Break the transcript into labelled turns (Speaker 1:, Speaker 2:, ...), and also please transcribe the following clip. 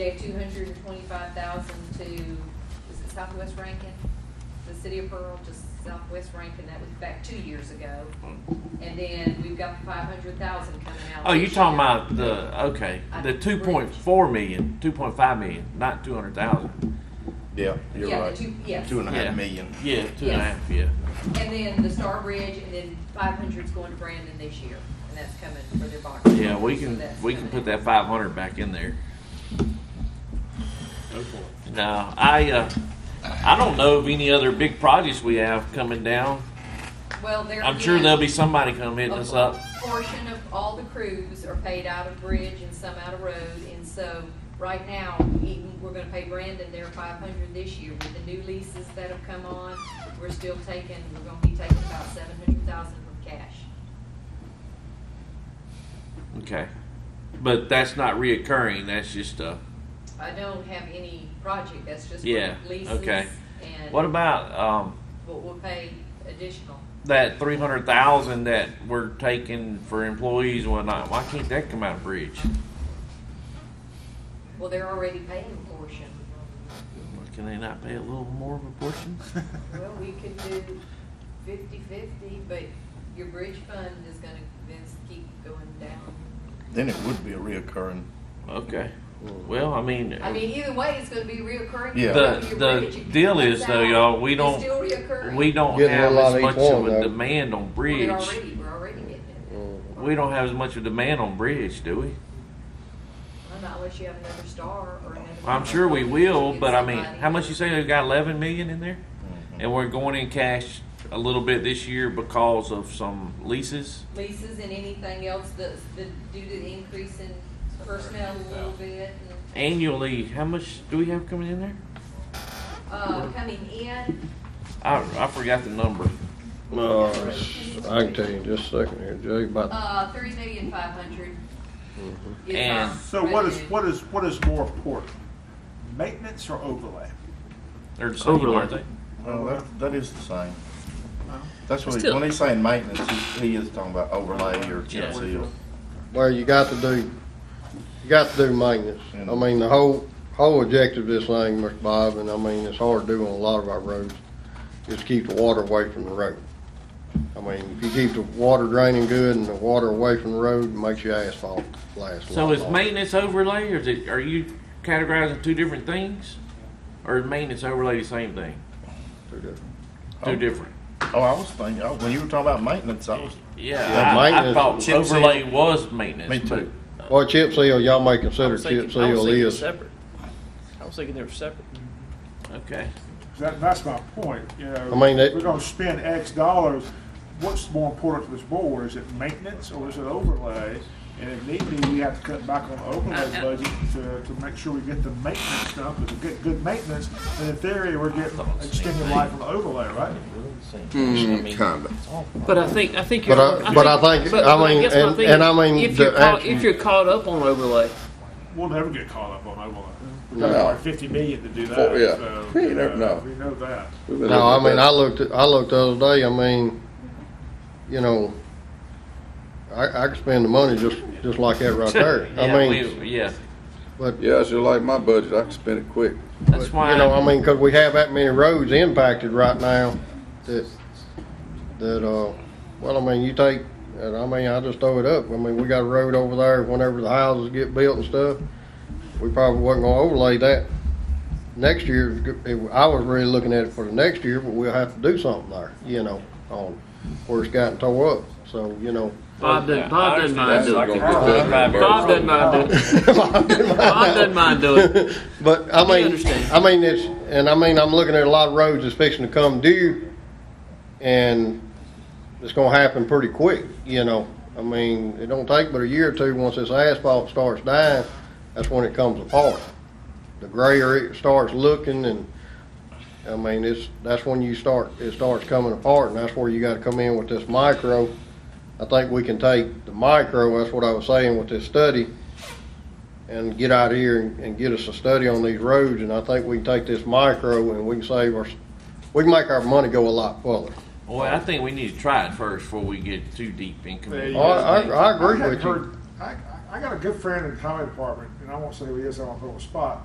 Speaker 1: Gave two hundred and twenty-five thousand to, is it Southwest Rankin? The city of Pearl, just Southwest Rankin, that was back two years ago. And then we've got five hundred thousand coming out.
Speaker 2: Oh, you
Speaker 1: this
Speaker 2: talking
Speaker 1: year.
Speaker 2: about the, okay, the
Speaker 1: Uh,
Speaker 2: two point four million, two point five million, not two hundred thousand.
Speaker 3: Yeah, you're
Speaker 1: Yeah, the
Speaker 3: right.
Speaker 1: two- yes.
Speaker 3: Two and a
Speaker 2: Yeah.
Speaker 3: half million.
Speaker 2: Yeah, two and a
Speaker 1: Yes.
Speaker 2: half, yeah.
Speaker 1: And then the Star Bridge, and then five hundred's going to Brandon this year, and that's coming for their bond.
Speaker 2: Yeah, we
Speaker 1: So
Speaker 2: can,
Speaker 1: that's
Speaker 2: we can
Speaker 1: coming.
Speaker 2: put that five hundred back in there. No, I, uh, I don't know of any other big projects we have coming down.
Speaker 1: Well, there.
Speaker 2: I'm sure
Speaker 1: again,
Speaker 2: there'll be somebody come hitting us up.
Speaker 1: A portion of all the crews are paid out of bridge and some out of road, and so right now, even, we're gonna pay Brandon their five hundred this year with the new leases that have come on. We're still taking, we're gonna be taking about seven hundred thousand from cash.
Speaker 2: Okay. But that's not reoccurring, that's just, uh,
Speaker 1: I don't have any project, that's just
Speaker 2: Yeah,
Speaker 1: leases
Speaker 2: okay.
Speaker 1: and
Speaker 2: what about, um,
Speaker 1: what we'll pay additional.
Speaker 2: that three hundred thousand that we're taking for employees and whatnot? Why can't that come out of bridge?
Speaker 1: Well, they're already paying a portion.
Speaker 2: Can they not pay a little more of a portion?
Speaker 1: Well, we could do fifty-fifty, but your bridge fund is gonna, Vince, keep going down.
Speaker 3: Then it would be a reoccurring.
Speaker 2: Okay. Well, I mean,
Speaker 1: I mean, either way, it's gonna be reoccurring.
Speaker 3: Yeah.
Speaker 1: Whether
Speaker 2: The-
Speaker 1: your
Speaker 2: the
Speaker 1: bridge it
Speaker 2: deal is,
Speaker 1: comes
Speaker 2: though,
Speaker 1: out,
Speaker 2: y'all, we
Speaker 1: it's
Speaker 2: don't-
Speaker 1: still reoccurring.
Speaker 2: we don't
Speaker 4: Getting a
Speaker 2: have
Speaker 4: lot
Speaker 2: as
Speaker 4: of
Speaker 2: much
Speaker 4: each
Speaker 2: of
Speaker 4: one,
Speaker 2: a
Speaker 4: though.
Speaker 2: demand on
Speaker 1: We're
Speaker 2: bridge. Mm-hmm.
Speaker 1: already, we're already getting it.
Speaker 2: We don't have as much of a demand on bridge, do we?
Speaker 1: Well, Not unless you have another star or another.
Speaker 2: I'm sure we will,
Speaker 1: Get
Speaker 2: but I mean,
Speaker 1: somebody.
Speaker 2: how much you say we've got eleven million in there?
Speaker 4: Mm-hmm.
Speaker 2: And we're going in cash a little bit this year because of some leases?
Speaker 1: Leases and anything else that's, the, due to the increase in personnel a little bit and.
Speaker 2: Annually, how much do we have coming in there?
Speaker 1: uh, coming in,
Speaker 2: I, I forgot the number.
Speaker 4: Uh, I can tell you in just a second here, Jay, about,
Speaker 1: uh, three million five hundred.
Speaker 2: And-
Speaker 5: So what is, what is, what is more important? Maintenance or overlay?
Speaker 2: They're the same,
Speaker 6: Overlay.
Speaker 2: aren't they?
Speaker 3: Well, that, that is the same.
Speaker 5: Well,
Speaker 3: That's what, he-
Speaker 6: Still-
Speaker 3: when he's saying maintenance, he, he is talking about overlay or chip
Speaker 2: Yeah.
Speaker 3: seal.
Speaker 4: where you got to do, you got to do maintenance. I mean, the whole, whole objective of this thing, Mr. Bob, and I mean, it's hard to do on a lot of our roads, is keep the water away from the road. I mean, if you keep the water draining good and the water away from the road, it makes your asphalt last a
Speaker 2: So
Speaker 4: lot
Speaker 2: is
Speaker 4: longer.
Speaker 2: maintenance overlay, or is it, are you categorizing two different things? Or is maintenance overlay the same thing?
Speaker 4: Two different.
Speaker 2: Two
Speaker 3: Oh.
Speaker 2: different?
Speaker 3: Oh, I was thinking, oh, when you were talking about maintenance, I was,
Speaker 2: Yeah,
Speaker 4: Yeah,
Speaker 2: I, I
Speaker 4: maintenance-
Speaker 2: thought
Speaker 6: Chip seal.
Speaker 2: overlay was maintenance.
Speaker 3: Me
Speaker 2: but-
Speaker 3: too.
Speaker 4: Well, chip seal, y'all may
Speaker 6: I
Speaker 4: consider
Speaker 6: was
Speaker 4: chip
Speaker 6: thinking, I was
Speaker 4: seal
Speaker 6: thinking
Speaker 4: is,
Speaker 6: separate. I was thinking they were separate.
Speaker 2: Okay,
Speaker 5: That, that's my point, you know.
Speaker 4: I mean, it-
Speaker 5: We're gonna spend X dollars, what's more important to this board, is it maintenance or is it overlay? And if need be, we have to cut back on the overlay budget to, to make sure we get the maintenance stuff, because we get good maintenance, and in theory, we're getting extended life on the overlay, right?
Speaker 7: Hmm, Kinda.
Speaker 6: But I think, I think you're.
Speaker 4: but I, but I think,
Speaker 6: but-
Speaker 4: I
Speaker 6: but
Speaker 4: mean,
Speaker 6: guess my
Speaker 4: and,
Speaker 6: thing
Speaker 4: and
Speaker 6: is,
Speaker 4: I mean.
Speaker 6: If
Speaker 4: the
Speaker 6: you're caught,
Speaker 4: act-
Speaker 6: if you're caught up on overlay,
Speaker 5: We'll never get caught up on overlay. We
Speaker 7: No.
Speaker 5: got like fifty million to do that,
Speaker 7: Oh, yeah.
Speaker 5: so,
Speaker 7: We
Speaker 5: you
Speaker 7: don't
Speaker 5: know,
Speaker 7: know.
Speaker 5: we know that.
Speaker 4: No, I mean, I looked, at- I looked the other day, I mean, you know, I, I could spend the money just, just like that right there.
Speaker 2: yeah,
Speaker 4: I mean,
Speaker 2: we- yeah,
Speaker 4: but, you
Speaker 7: Yeah, it's just like my budget, I can spend it quick.
Speaker 2: that's why.
Speaker 4: know, I mean, 'cause we have that many roads impacted right now that, that, uh, well, I mean, you take, and I mean, I just throw it up. I mean, we got a road over there, whenever the houses get built and stuff, we probably wasn't gonna overlay that. Next year, I was really looking at it for the next year, but we'll have to do something there, you know, on where it's gotten tore up, so, you know.
Speaker 6: Bob doesn't, Bob doesn't mind
Speaker 7: That's
Speaker 6: doing
Speaker 7: not
Speaker 6: it.
Speaker 7: gonna get done in a
Speaker 2: Bob
Speaker 6: Bob
Speaker 7: burst.
Speaker 6: doesn't mind doing it. Bob doesn't
Speaker 4: Bob
Speaker 6: mind doing it.
Speaker 4: But I
Speaker 6: We
Speaker 4: mean,
Speaker 6: understand.
Speaker 4: I mean, it's, and I mean, I'm looking at a lot of roads that's fixing to come due and it's gonna happen pretty quick, you know. I mean, it don't take but a year or two, once this asphalt starts dying, that's when it comes apart. The grayer it starts looking and, I mean, it's, that's when you start, it starts coming apart and that's where you gotta come in with this micro. I think we can take the micro, that's what I was saying with this study, and get out here and, and get us a study on these roads, and I think we can take this micro and we can save our, we can make our money go a lot further.
Speaker 2: Well, I think we need to try it first before we get too deep in
Speaker 5: There
Speaker 2: committee.
Speaker 5: you
Speaker 4: Oh, I, I, I
Speaker 5: I
Speaker 4: agree
Speaker 5: hadn't
Speaker 4: with you.
Speaker 5: heard- I, I- I got a good friend in the highway department, and I won't say who it is, I won't put it on the spot,